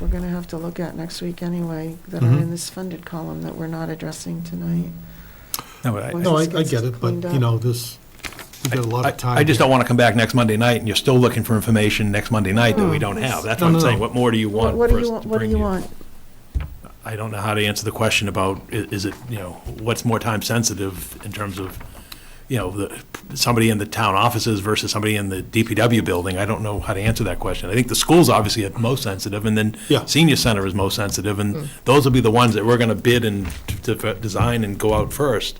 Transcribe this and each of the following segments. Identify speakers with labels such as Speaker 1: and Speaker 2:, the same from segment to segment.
Speaker 1: we're gonna have to look at next week anyway, that are in
Speaker 2: Mhm.
Speaker 1: this funded column that we're not addressing tonight.
Speaker 2: No, I-
Speaker 1: Well,
Speaker 2: I-
Speaker 3: No, I,
Speaker 1: just
Speaker 3: I
Speaker 1: gets
Speaker 3: get it, but,
Speaker 1: cleaned
Speaker 3: you
Speaker 1: up.
Speaker 3: know, this, we've got a lot of time.
Speaker 2: I just
Speaker 3: here.
Speaker 2: don't want to come back next Monday night and you're still looking for information next Monday night that we don't have. That's
Speaker 3: No,
Speaker 2: what I'm
Speaker 3: no,
Speaker 2: saying.
Speaker 3: no.
Speaker 2: What more do you
Speaker 1: What
Speaker 2: want
Speaker 1: what
Speaker 2: for
Speaker 1: do
Speaker 2: us
Speaker 1: you,
Speaker 2: to
Speaker 1: want? what do
Speaker 2: bring
Speaker 1: you
Speaker 2: you?
Speaker 1: want?
Speaker 2: I don't know how to answer the question about, i- is it, you know, what's more time sensitive in terms of, you know, the, somebody in the town offices versus somebody in the DPW building? I don't know how to answer that question. I think the school's obviously at most sensitive, and then
Speaker 3: Yeah.
Speaker 2: senior center is most sensitive, and those will be the ones that we're going to bid and to, to design and go out first.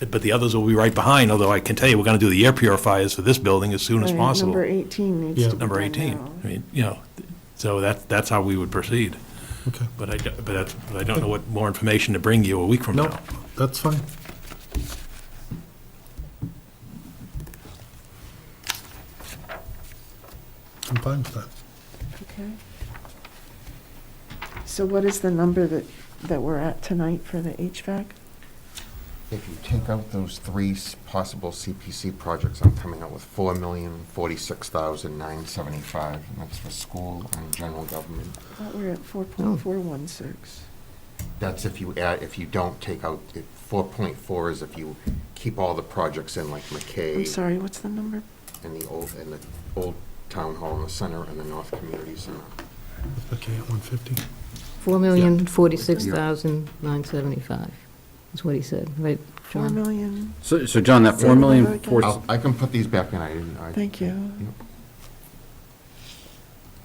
Speaker 2: But the others will be right behind, although I can tell you, we're going to do the air purifiers for this building as soon as
Speaker 1: Right,
Speaker 2: possible.
Speaker 1: Number eighteen needs
Speaker 3: Yeah.
Speaker 1: to be
Speaker 2: Number
Speaker 1: done
Speaker 2: 18.
Speaker 1: now.
Speaker 2: I mean, you know, so that, that's how we would proceed.
Speaker 3: Okay.
Speaker 2: But I, don't- but I- but I don't know what more information to bring you a week from
Speaker 3: No,
Speaker 2: now.
Speaker 3: that's fine. I'm fine with that.
Speaker 1: Okay. So what is the number that, that we're at tonight for the HVAC?
Speaker 4: If you take out those three s- possible CPC projects, I'm coming out with four million, forty-six thousand, nine seventy-five, and that's for school and general government.
Speaker 1: I thought we were at four point four one six.
Speaker 4: That's if you add, if you don't take out, four point four is if you keep all the projects in, like
Speaker 1: I'm
Speaker 4: McKay
Speaker 1: sorry, what's the number?
Speaker 4: and the old, and the old town hall in the center and the north community center.
Speaker 3: Okay, at one fifty.
Speaker 5: Four million forty-six thousand nine seventy-five is what he said, right,
Speaker 1: Four
Speaker 5: John?
Speaker 1: million,
Speaker 6: So, so John, that four million, four,
Speaker 4: I'll- I can put these back in, I didn't, I.
Speaker 1: thank you.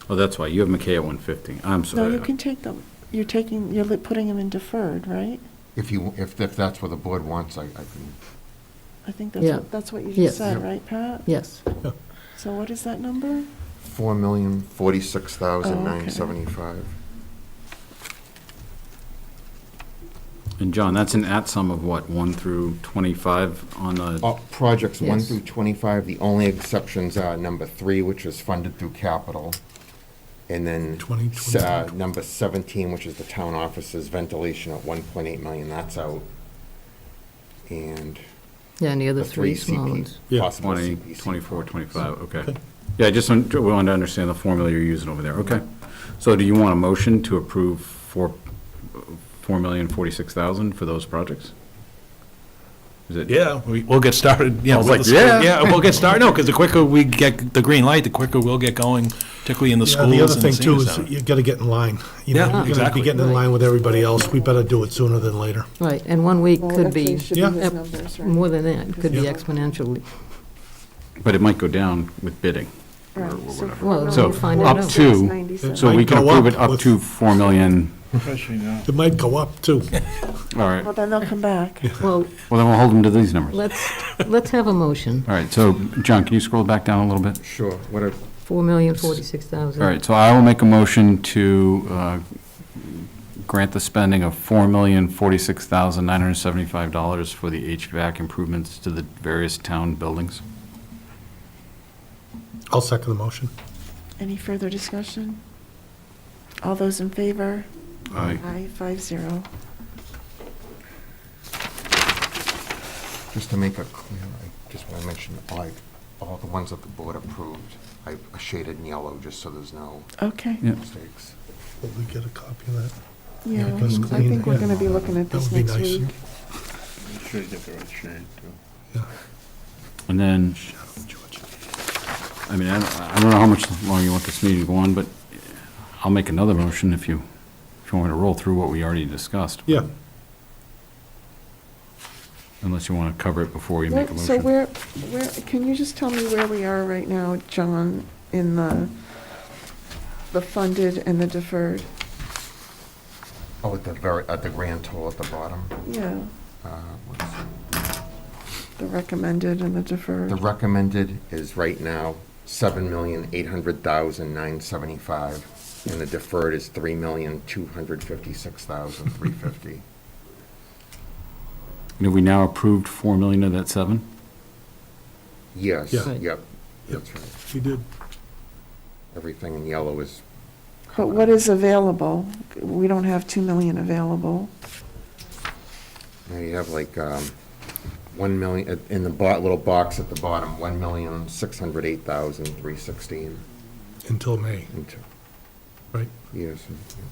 Speaker 6: oh, that's why, you have McKay at one fifty, I'm
Speaker 1: No,
Speaker 6: sorry.
Speaker 1: you can take them, you're taking, you're li- putting them in deferred, right?
Speaker 4: If you, if, if that's what the board wants, I, I can,
Speaker 1: I think that's,
Speaker 5: Yeah.
Speaker 1: what- that's what you
Speaker 5: Yes.
Speaker 1: just said,
Speaker 4: Yep.
Speaker 1: right, Pat?
Speaker 5: Yes,
Speaker 1: So what is that number?
Speaker 4: four million, forty-six thousand,
Speaker 1: Oh, okay.
Speaker 4: nine seventy-five.
Speaker 6: And John, that's an at sum of what, one through twenty-five on the,
Speaker 3: Oh,
Speaker 4: Uh, Projects 1
Speaker 5: Yes.
Speaker 4: through 25, the only exceptions are number 3, which is funded through capital, and then
Speaker 3: 20,
Speaker 4: s- uh,
Speaker 3: 25.
Speaker 4: number 17, which is the town offices ventilation at 1.8 million, that's out. And
Speaker 5: yeah, and the other
Speaker 4: the
Speaker 5: three
Speaker 4: three
Speaker 5: small
Speaker 4: CP,
Speaker 5: ones.
Speaker 3: Yeah.
Speaker 4: possible
Speaker 6: twenty,
Speaker 4: CPC.
Speaker 6: twenty-four, twenty-five, okay.
Speaker 3: Okay.
Speaker 6: Yeah, just, want- we wanted to understand the formula you're using over there, okay. So do you want a motion to approve four, four million, forty-six thousand for those projects? Is it?
Speaker 2: Yeah, we, we'll get started, you
Speaker 6: I
Speaker 2: know.
Speaker 6: was
Speaker 2: with
Speaker 6: like,
Speaker 2: the school.
Speaker 6: yeah.
Speaker 2: Yeah, we'll get started, no, because the quicker we get the green light, the quicker we'll get going, particularly in the
Speaker 3: Yeah,
Speaker 2: schools and
Speaker 3: the
Speaker 2: the
Speaker 3: other thing too
Speaker 2: senior
Speaker 3: is
Speaker 2: center.
Speaker 3: you gotta get in line. You
Speaker 2: Yeah,
Speaker 3: know, you're gonna
Speaker 2: exactly.
Speaker 3: be getting in line with everybody else. We better do it sooner than later.
Speaker 5: Right, and one week
Speaker 1: Well,
Speaker 5: could
Speaker 1: actually,
Speaker 5: be
Speaker 1: it should
Speaker 3: Yeah.
Speaker 1: his numbers, right?
Speaker 5: more than that, it could be
Speaker 3: Yeah.
Speaker 5: exponentially.
Speaker 6: But it might go down with bidding. or-
Speaker 1: Right,
Speaker 6: or
Speaker 1: so
Speaker 6: whatever.
Speaker 5: Well,
Speaker 1: four
Speaker 5: So,
Speaker 1: million, four
Speaker 5: up
Speaker 1: point
Speaker 6: to-
Speaker 1: six, ninety-seven.
Speaker 6: So we can
Speaker 3: Might go
Speaker 6: approve it
Speaker 3: up
Speaker 6: up
Speaker 3: with-
Speaker 6: to four million,
Speaker 3: It might go up too.
Speaker 6: all right,
Speaker 1: Well, then they'll come back.
Speaker 5: Well,
Speaker 6: well, then we'll hold them to these numbers.
Speaker 5: let's, let's have a motion,
Speaker 6: All right, so, John, can you scroll back down a little bit?
Speaker 4: Sure, what are,
Speaker 5: four million forty-six thousand.
Speaker 6: All right, so I will make a motion to uh, grant the spending of $4,046,975 for the HVAC improvements to the various town buildings.
Speaker 3: I'll second the motion.
Speaker 1: Any further discussion? All those in favor?
Speaker 6: Aye.
Speaker 1: Aye, five zero.
Speaker 4: just to make it clear, I just want to mention, all I- all the ones that the board approved, I shaded in yellow, just so there's no
Speaker 1: Okay,
Speaker 6: Yeah.
Speaker 4: mistakes.
Speaker 3: Will we get a copy of that?
Speaker 1: yeah,
Speaker 3: Yeah,
Speaker 1: I
Speaker 3: just clean
Speaker 1: think
Speaker 3: it.
Speaker 1: we're gonna be looking at
Speaker 3: That
Speaker 1: this
Speaker 3: would be
Speaker 1: next
Speaker 3: nice.
Speaker 1: week.
Speaker 3: Yeah.
Speaker 6: And then,
Speaker 3: George.
Speaker 6: I mean, I don't- I don't know how much longer you want this meeting to go on, but I'll make another motion if you, if you want me to roll through what we already discussed.
Speaker 3: Yeah,
Speaker 6: Unless you want to cover it before you make a
Speaker 1: Where- So
Speaker 6: motion.
Speaker 1: where, where, can you just tell me where we are right now, John, in the, the funded and the deferred?
Speaker 4: Oh, at the very, at the grand total at the bottom.
Speaker 1: Yeah,
Speaker 4: uh, what is it?
Speaker 1: the recommended and the
Speaker 4: The
Speaker 1: deferred.
Speaker 4: recommended is right now seven million, eight hundred thousand, nine seventy-five, and the deferred is three million, two hundred fifty-six thousand, three fifty.
Speaker 6: And Have we now approved 4 million of that 7?
Speaker 4: Yes,
Speaker 3: Yeah.
Speaker 5: Right.
Speaker 4: yep, that's right.
Speaker 3: we did.
Speaker 4: Everything in yellow is.
Speaker 1: But what is available? We don't have 2 million available.
Speaker 4: Now you have like, um, one million, uh, in the bo- little box at the bottom, one million, six hundred eight thousand, three sixteen.
Speaker 3: Until May,
Speaker 4: into-
Speaker 3: right?
Speaker 4: years. and-